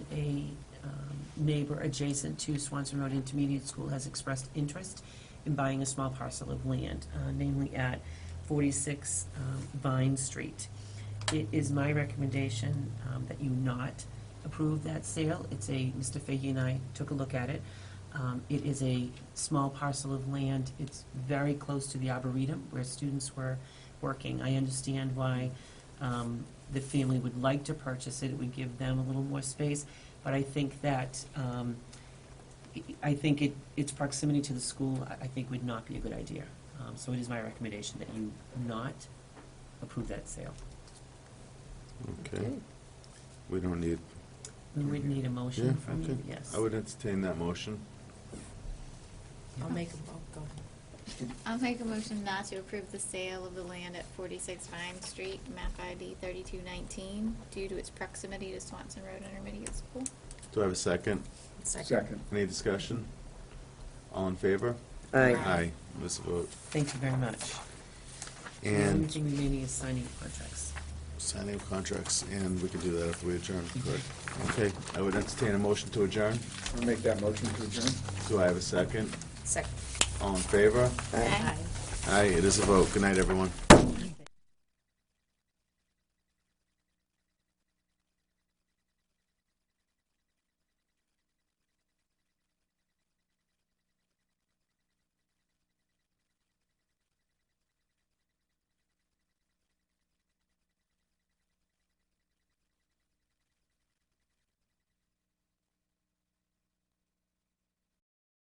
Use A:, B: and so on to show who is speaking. A: a um, neighbor adjacent to Swanson Road Intermediate School has expressed interest in buying a small parcel of land, uh, namely at 46 um, Vine Street. It is my recommendation um, that you not approve that sale. It's a, Mr. Fahey and I took a look at it. Um, It is a small parcel of land. It's very close to the Arboretum where students were working. I understand why um, the family would like to purchase it. It would give them a little more space. But I think that, um, I think it, its proximity to the school, I I think would not be a good idea. Um, So it is my recommendation that you not approve that sale.
B: Okay, we don't need,
A: We would need a motion
B: Yeah,
A: from you,
B: okay.
A: yes.
B: I would entertain that motion.
C: I'll make a, oh, go ahead.
D: I'll make a motion not to approve the sale of the land at 46 Vine Street, map ID 3219, due to its proximity to Swanson Road Intermediate School.
B: Do I have a second?
E: Second.
B: Any discussion? All in favor?
D: Aye.
B: Aye, this vote.
A: Thank you very much. The only
B: And
A: thing remaining is signing contracts.
B: signing of contracts, and we can do that after we adjourn, correct? Okay, I would entertain a motion to adjourn.
E: I'll make that motion to adjourn.
B: Do I have a second?
C: Second.
B: All in favor?
D: Aye.
B: Aye, it is a vote. Good night, everyone.
C: Aye.